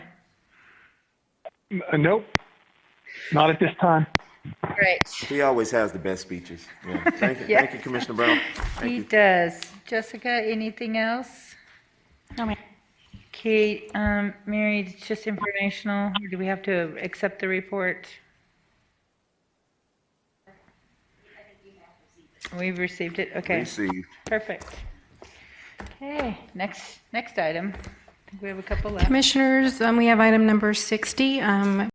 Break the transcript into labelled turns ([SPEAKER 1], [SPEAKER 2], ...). [SPEAKER 1] Uh, Nope, not at this time.
[SPEAKER 2] Great.
[SPEAKER 3] He always has the best speeches. Yeah. Thank you, thank you, Commissioner Brown. Thank
[SPEAKER 2] He
[SPEAKER 3] you.
[SPEAKER 2] does. Jessica, anything else?
[SPEAKER 4] No, ma'am.
[SPEAKER 2] Kate, um, Mary, it's just informational. or Do we have to accept the report? We've received it. Okay,
[SPEAKER 3] Received.
[SPEAKER 2] perfect. Okay, next, next item. I think we have a couple left.
[SPEAKER 4] Commissioners, um, we have item number 60, um,